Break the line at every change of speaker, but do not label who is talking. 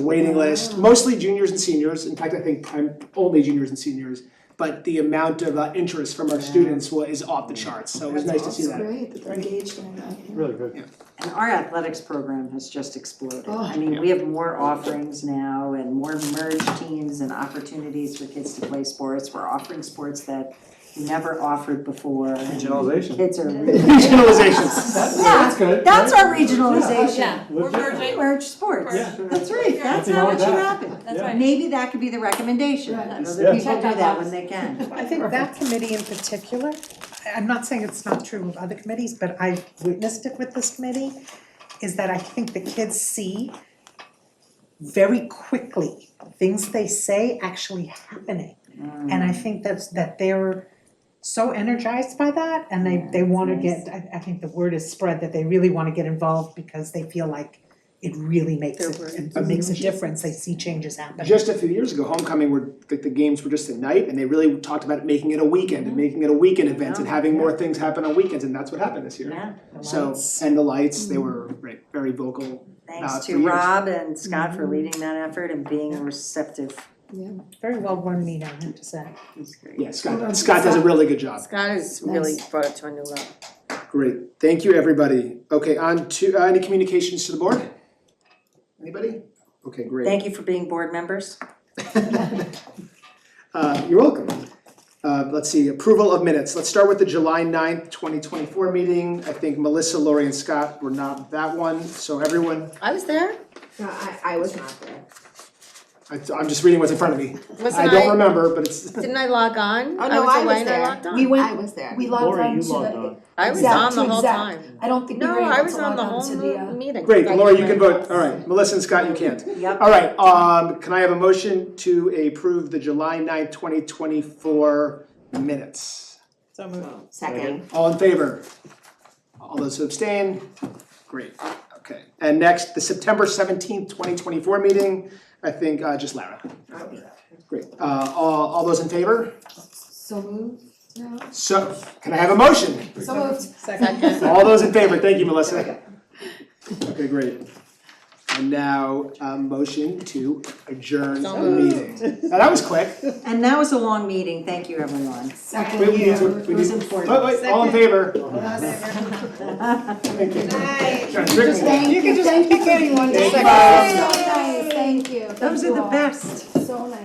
waiting list, mostly juniors and seniors, in fact, I think prime, only juniors and seniors. But the amount of uh, interest from our students wa- is off the charts, so it was nice to see
That's
that.
great that they're engaged in that. yeah.
Really good.
And our athletics program has just exploded.
Oh.
I mean, we have more offerings now and more merged teams and opportunities for kids to play sports. We're offering sports that we never offered before. and
Regionalization.
Kids are really.
Regionalizations.
That's good.
That's our
Yeah.
regionalization.
We're merging.
Merge sports.
Yeah.
That's right,
Yeah.
that's
Nothing
how
wrong
it
with
should
that.
happen.
That's right.
Maybe that could be the recommendation,
Right.
and
Yeah.
other people do
Check
that
out
when they can.
I think that committee in particular, I- I'm not saying it's not true of other committees, but I've witnessed it with this committee, is that I think the kids see very quickly things they say actually happening. And I think that's, that they're so energized by that and they, they wanna
nice.
get, I, I think the word is spread that they really wanna get involved because they feel like it really makes it, it makes a difference, they see changes happening.
Just a few years ago, homecoming were, like, the games were just a night, and they really talked about making it a weekend, and making it a weekend event, and having more things happen on weekends, and that's what happened this year.
Yeah,
So, and the lights, they were right, very vocal. Uh,
thanks
for
to Mm-hmm.
years.
Rob and Scott for leading that effort and being receptive.
Very well run meeting, I have to say.
It's great.
Yeah, Scott, Scott does a really good job.
Scott has really brought it to a new level.
Great, thank you, everybody. Okay, on to, uh, any communications to the board? Anybody? Okay, great.
Thank you for being board members.
Uh, you're welcome. Uh, let's see, approval of minutes. Let's start with the July 9th, twenty twenty-four meeting. I think Melissa, Lori, and Scott were not that one, so everyone,
I was there.
No, I, I was not there.
I, I'm just reading what's in front of me. I
Wasn't
don't
I,
remember, but it's,
didn't I log on?
Oh, no, I
away
was
and I
there.
logged on.
We went. I was there. We logged
Lori,
on
you
to
logged
the,
on.
I was
Exact
on the
to
whole
exact.
time.
I don't think we
No,
were able
I
to
was on
log
the
on
whole
to the, uh,
mo- meeting.
great,
I
Lori, you can
didn't-
vote. All right, Melissa and Scott, you can't.
Yep.
All right, um, can I have a motion to approve the July 9th, twenty twenty-four minutes?
second.
All in favor? All those who abstain? Great, okay. And next, the September seventeenth, twenty twenty-four meeting, I think, uh, just Lara. Great, uh, all, all those in favor?
So moved? No.
So, can I have a motion?
So moved.
Second.
All those in favor, thank you, Melissa. Okay, great. And now, a motion to adjourn the meeting. Now, that was quick.
And that was a long meeting, thank you, everyone.
We-
Second
we need
year.
to- we
It was
need-
important.
Wait, wait, all in favor? Thank you. Trying to trick me.
Thank you, thank you, thank you.
Those are the best.
So nice.